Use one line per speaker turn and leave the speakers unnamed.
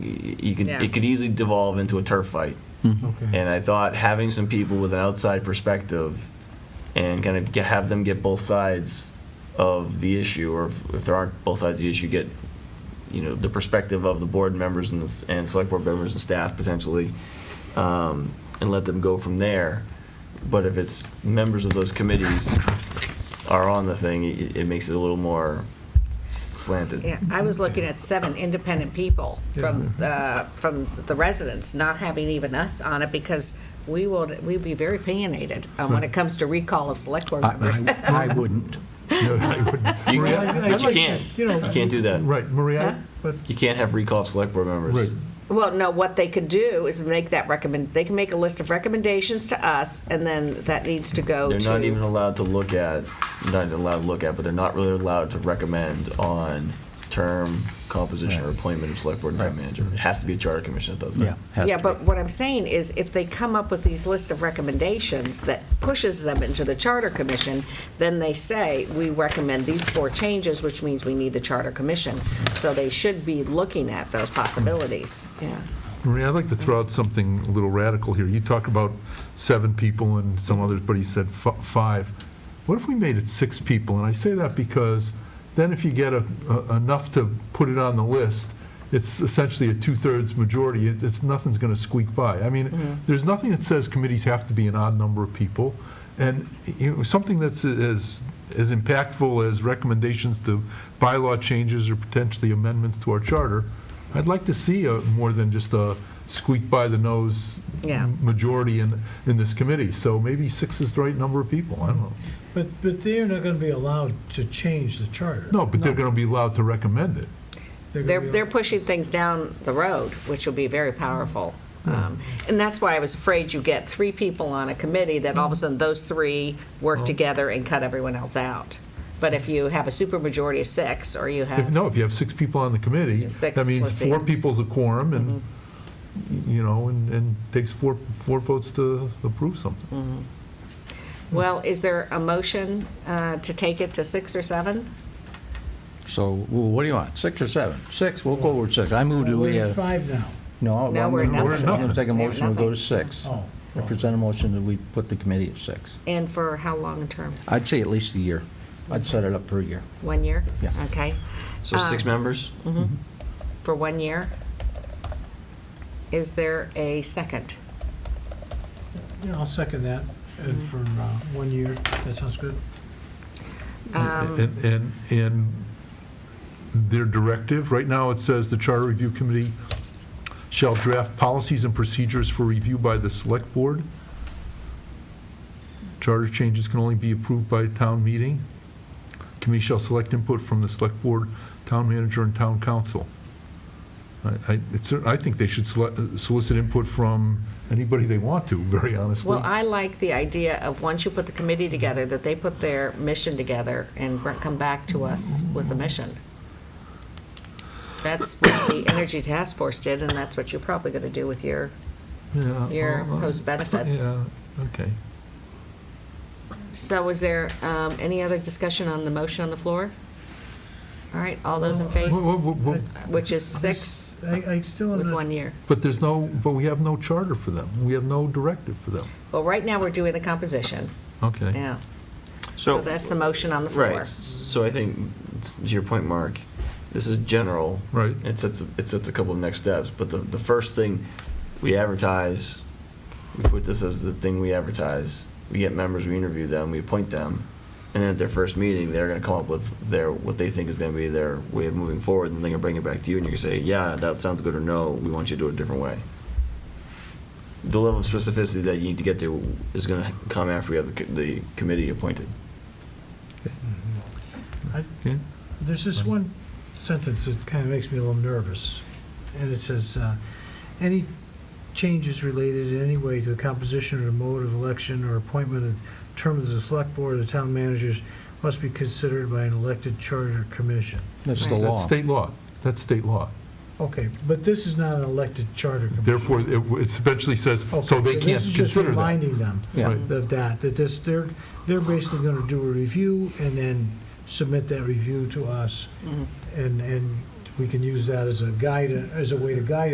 you could
Yeah.
it could easily devolve into a turf fight.
Okay.
And I thought having some people with an outside perspective and kind of ge- have them get both sides of the issue, or if, if there aren't both sides of the issue, get you know the perspective of the board members and, the, s- and select board members and staff potentially, um, and let them go from there. But if it's members of those committees are on the thing, it, it makes it a little more s- slanted.
Yeah, I was looking at seven independent people from, uh, from the residents, not having even us on it, because we will, we'd be very opinionated uh, when it comes to recall of select board members.
I- I I wouldn't. No, I wouldn't.
You,
Maria, I- I
but you
like
can't.
that, you know,
you can't do that.
Right,
Huh?
Maria, but,
You can't have recall of select board members.
right,
Well, no, what they could do is make that recommend, they can make a list of recommendations to us, and then that needs to go
They're not even
to,
allowed to look at, not even allowed to look at, but they're not really allowed to recommend on term composition or appointment of select board and town manager. It has to be a charter commission that does that.
Yeah. has
yeah,
to
but
be.
what I'm saying is, if they come up with these lists of recommendations that pushes them into the charter commission, then they say, we recommend these four changes, which means we need the charter commission. So they should be looking at those possibilities, yeah.
Maria, I'd like to throw out something a little radical here. You talk about seven people and some others, but he said fi- five. What if we made it six people? And I say that because then if you get a- a- enough to put it on the list, it's essentially a two-thirds majority. It- It's, nothing's going to squeak by. I mean, there's nothing that says committees have to be an odd number of people. And you know, something that's as, as impactful as recommendations to bylaw changes or potentially amendments to our charter, I'd like to see a, more than just a squeak by the nose
Yeah.
majority in, in this committee. So maybe six is the right number of people, I don't know.
But, but they're not going to be allowed to change the charter.
No, but they're gonna be allowed to recommend it.
They're
They're,
gonna be-
they're pushing things down the road, which will be very powerful. Um, And that's why I was afraid you get three people on a committee, that all of a sudden those three work together and cut everyone else out. But if you have a supermajority of six, or you
If,
have,
no, if you have six people on the committee,
Six
that
plus
means four
eight. Mm-hmm.
people's a quorum and, you know, and, and takes four, four votes to approve something.
well, is there a motion uh, to take it to six or seven?
So wh- what do you want, six or seven? Six, we'll go with six. I move to we,
We're at
uh,
five now.
no, I'm
No, we're
going
at
nothing.
to take a
We're at
motion, we'll go
nothing.
to six.
Oh,
I present a motion that we put the committee at six.
And for how long a term?
I'd say at least a year. I'd set it up for a year.
One year?
Yeah.
Okay,
So
Ah.
six members?
for one year? Is there a second?
Yeah, I'll second that, and for uh, one year, that sounds good.
And, and, and their directive, right now it says the Charter Review Committee shall draft policies and procedures for review by the Select Board. Charter changes can only be approved by a town meeting. Committee shall select input from the Select Board, Town Manager, and Town Council. I, I, it's, I think they should sele- solicit input from anybody they want to, very honestly.
Well, I like the idea of, once you put the committee together, that they put their mission together and br- come back to us with a mission. That's what the Energy Task Force did, and that's what you're probably going to do with your,
Yeah,
your
well, I-
post benefits.
Uh-huh. Yeah, okay.
So is there um, any other discussion on the motion on the floor? All right, all those in favor,
Wha- wha- wha-
which is six
I, I still
with
am
one
not,
year.
But there's no, but we have no charter for them. We have no directive for them.
Well, right now, we're doing the composition,
Okay.
yeah. So that's the motion on the floor.
Right, S- so I think, to your point, Mark, this is general.
Right.
It sets, it sets a couple of next steps, but the, the first thing, we advertise, we put this as the thing we advertise, we get members, we interview them, we appoint them, and then at their first meeting, they're gonna come up with their, what they think is gonna be their way of moving forward, and they're gonna bring it back to you, and you're gonna say, yeah, that sounds good, or no, we want you to do it a different way. The level of specificity that you need to get to is gonna come after we have the, co- the committee appointed.
Mm-hmm. I-
Okay.
there's this one sentence that kind of makes me a little nervous, and it says, uh, "Any changes related in any way to the composition or mode of election or appointment of terms of the select board or the town managers must be considered by an elected charter commission."
That's the
Right.
That's
law.
state law. That's state law.
Okay, but this is not an elected charter commission.
Therefore, it it essentially says,
Okay,
so they can't
This is just
consider that.
reminding them
Yeah,
Right.
of that, that this, they're, they're basically gonna do a review and then submit that review to us. And, and we can use that as a guide, as a way to guide